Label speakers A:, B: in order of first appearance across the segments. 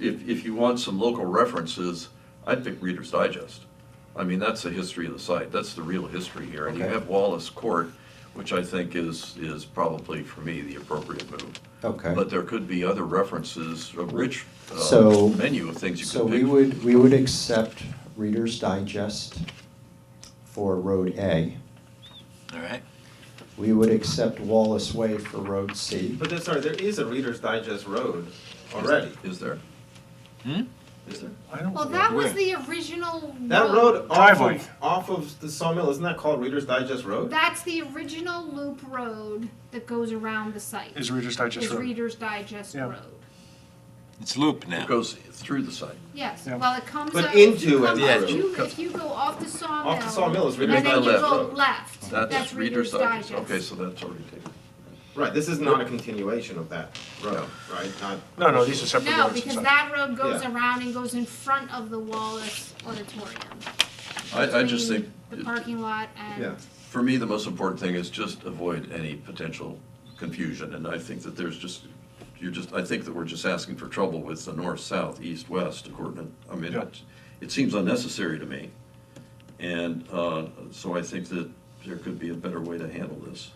A: if, if you want some local references, I'd pick Reader's Digest. I mean, that's the history of the site, that's the real history here. And you
B: Okay.
A: have Wallace Court, which I think is, is probably for me the appropriate move.
B: Okay.
A: But there could be other references, a rich uh,
B: So-
A: menu of things you
B: So
A: could pick.
B: we would, we would accept Reader's Digest for Road A.
C: All right.
B: We would accept Wallace Way for Road C.
D: But then, sorry, there is a Reader's Digest Road already,
A: Is there?
C: Hmm?
D: is there?
E: I don't.
F: Well,
E: think-
F: that was
C: Where?
F: the original.
D: That road off
E: Driveway.
D: of, off of the sawmill, isn't that called Reader's Digest Road?
F: That's the original loop road that goes around the site.
E: Is Reader's Digest
F: Is
E: Road.
F: Reader's Digest
E: Yeah.
F: Road.
C: It's loop
A: It
C: now.
A: goes through the site.
F: Yes,
E: Yeah.
F: well, it comes
D: But
F: out.
D: into
F: comes
D: it.
F: out-
C: Yeah.
F: you- If you go off the sawmill.
D: Off the sawmill is Reader's
F: And then you
A: Digest.
F: go left, that's Reader's Digest.
A: Okay, so that's already taken.
D: Right, this is not a continuation of that road, right? Not.
E: No, no, these are separate
F: No,
E: roads.
F: because
E: inside.
F: that road goes
D: Yeah.
F: around and goes in front of the Wallace Auditorium.
A: I, I just think,
F: between The parking lot
D: Yeah.
F: and,
A: for me, the most important thing is just avoid any potential confusion. And I think that there's just, you're just, I think that we're just asking for trouble with the north, south, east, west coordinate. I mean,
E: Yeah.
A: it, it seems unnecessary to me. And, uh, so I think that there could be a better way to handle this.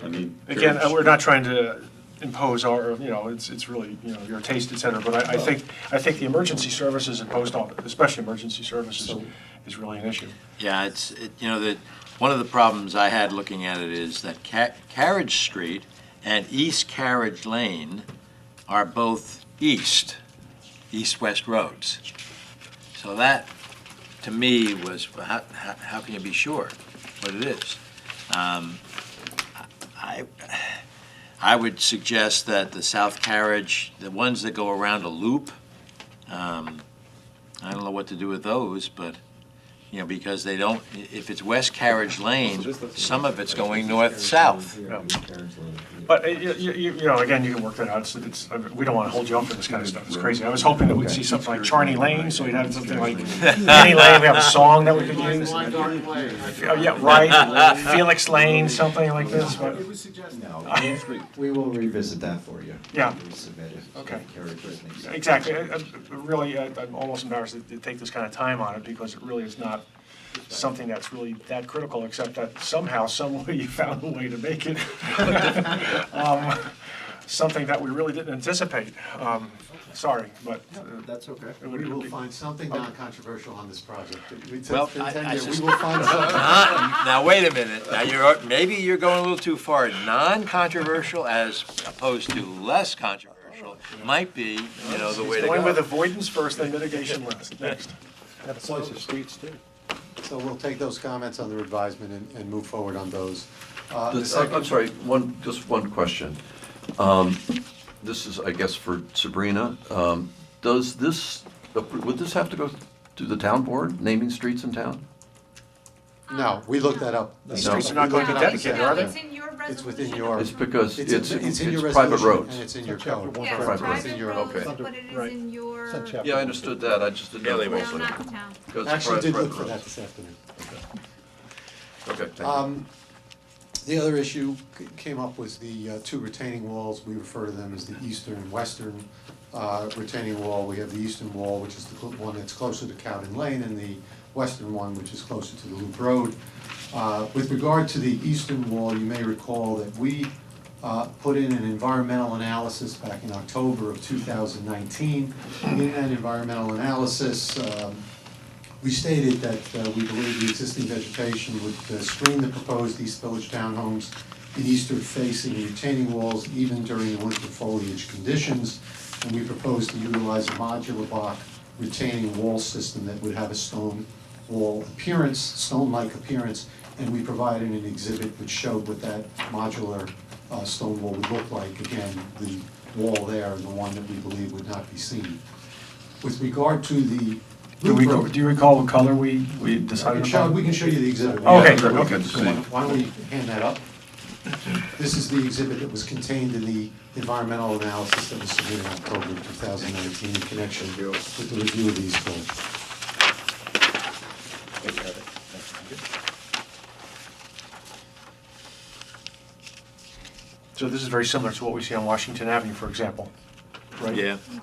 A: I mean.
E: Again,
A: there's-
E: uh, we're not trying to impose our, you know, it's, it's really, you know, your taste, et cetera, but I, I think, I think the emergency services and post office, especially emergency services,
B: So-
E: is really an issue.
C: Yeah, it's, it- you know, that, one of the problems I had looking at it is that Ca- Carriage Street and East Carriage Lane are both east, east-west roads. So that, to me, was, how, how how can you be sure what it is? Um, I, I would suggest that the South Carriage, the ones that go around a loop, um, I don't know what to do with those, but you know, because they don't, i- if it's West Carriage Lane, some of it's going north-south.
E: But, uh, you, you, you know, again, you can work that out, it's, it's, I mean, we don't wanna hold you up for this kind of stuff, it's crazy. I was hoping that we'd see something like Charney Lane, so we'd have something like Penny Lane, we have a song that we could use. Oh, Yeah, right, Felix Lane, something like this, but,
B: No, we will revisit that for you.
E: Yeah.
B: We submit it.
E: Okay.
B: Carriage is an example.
E: exactly, I- I- really, I- I'm almost embarrassed to- to take this kind of time on it, because it really is not something that's really that critical, except that somehow, some way you found a way to make it. Um, Something that we really didn't anticipate, um, sorry, but uh,
G: That's okay.
E: It would-
G: We will find something non-controversial on this project. It's
C: Well,
G: been
C: I-
G: 10
C: I
G: years.
C: sus-
G: We will find something.
C: Uh, Now, wait a minute, now you're, maybe you're going a little too far. Non-controversial as opposed to less controversial might be, you know, the way to
E: Going with
C: go.
E: avoidance first, then mitigation last, next.
G: That applies to streets too. So we'll take those comments under advisement and, and move forward on those. Uh, the
A: This-
G: second-
A: I'm sorry, one, just one question. Um, This is, I guess, for Sabrina. Um, Does this, would this have to go to the town board, naming streets in town?
G: No, we looked that up.
E: These
A: No.
E: streets are not going to
G: No.
E: be dedicated, are
F: No,
E: they?
F: it's in your
G: It's
F: resolution.
G: within your.
A: It's because
G: in-
A: it's, it's
G: in your
A: private
G: resolution
A: roads.
G: And it's in your
E: Chapter
G: code.
E: one,
F: Yeah,
A: Private roads.
F: private
G: in your-
F: roads,
A: okay.
F: but it
E: Right.
F: is in your,
A: Yeah, I understood that, I just didn't know.
C: Yeah, they
A: if it
F: no,
A: was
F: not
A: like-
F: the town.
A: because it's pri-
G: Actually did look
A: private
G: for that
A: roads.
G: this afternoon.
A: Okay, thank you.
G: Um, The other issue c- came up was the uh, two retaining walls, we refer to them as the eastern and western uh, retaining wall. We have the eastern wall, which is the cl- one that's closer to Cowden Lane, and the western one, which is closer to the Loop Road. Uh, With regard to the eastern wall, you may recall that we uh, put in an environmental analysis back in October of 2019. In that environmental analysis, um, we stated that uh, we believe the existing vegetation would uh, screen the proposed East Village townhomes in eastern facing retaining walls even during the winter foliage conditions. And we propose to utilize a modular block retaining wall system that would have a stone wall appearance, stone-like appearance. And we provided an exhibit which showed what that modular uh, stone wall would look like. Again, the wall there and the one that we believe would not be seen. With regard to the.
E: Do we, go-
G: Loop Road-
E: do you recall what color we, we
G: I can
E: decided
G: show,
E: upon?
G: we can show you the exhibit.
E: Oh, okay,
G: Yeah,
E: good,
G: we
E: okay.
G: can- so Why why don't we hand that up? This is the exhibit that was contained in the environmental analysis that was submitted in October of 2019 in connection with the review of these goals.
E: So this is very similar to what we see on Washington Avenue, for example, right?
C: Yeah.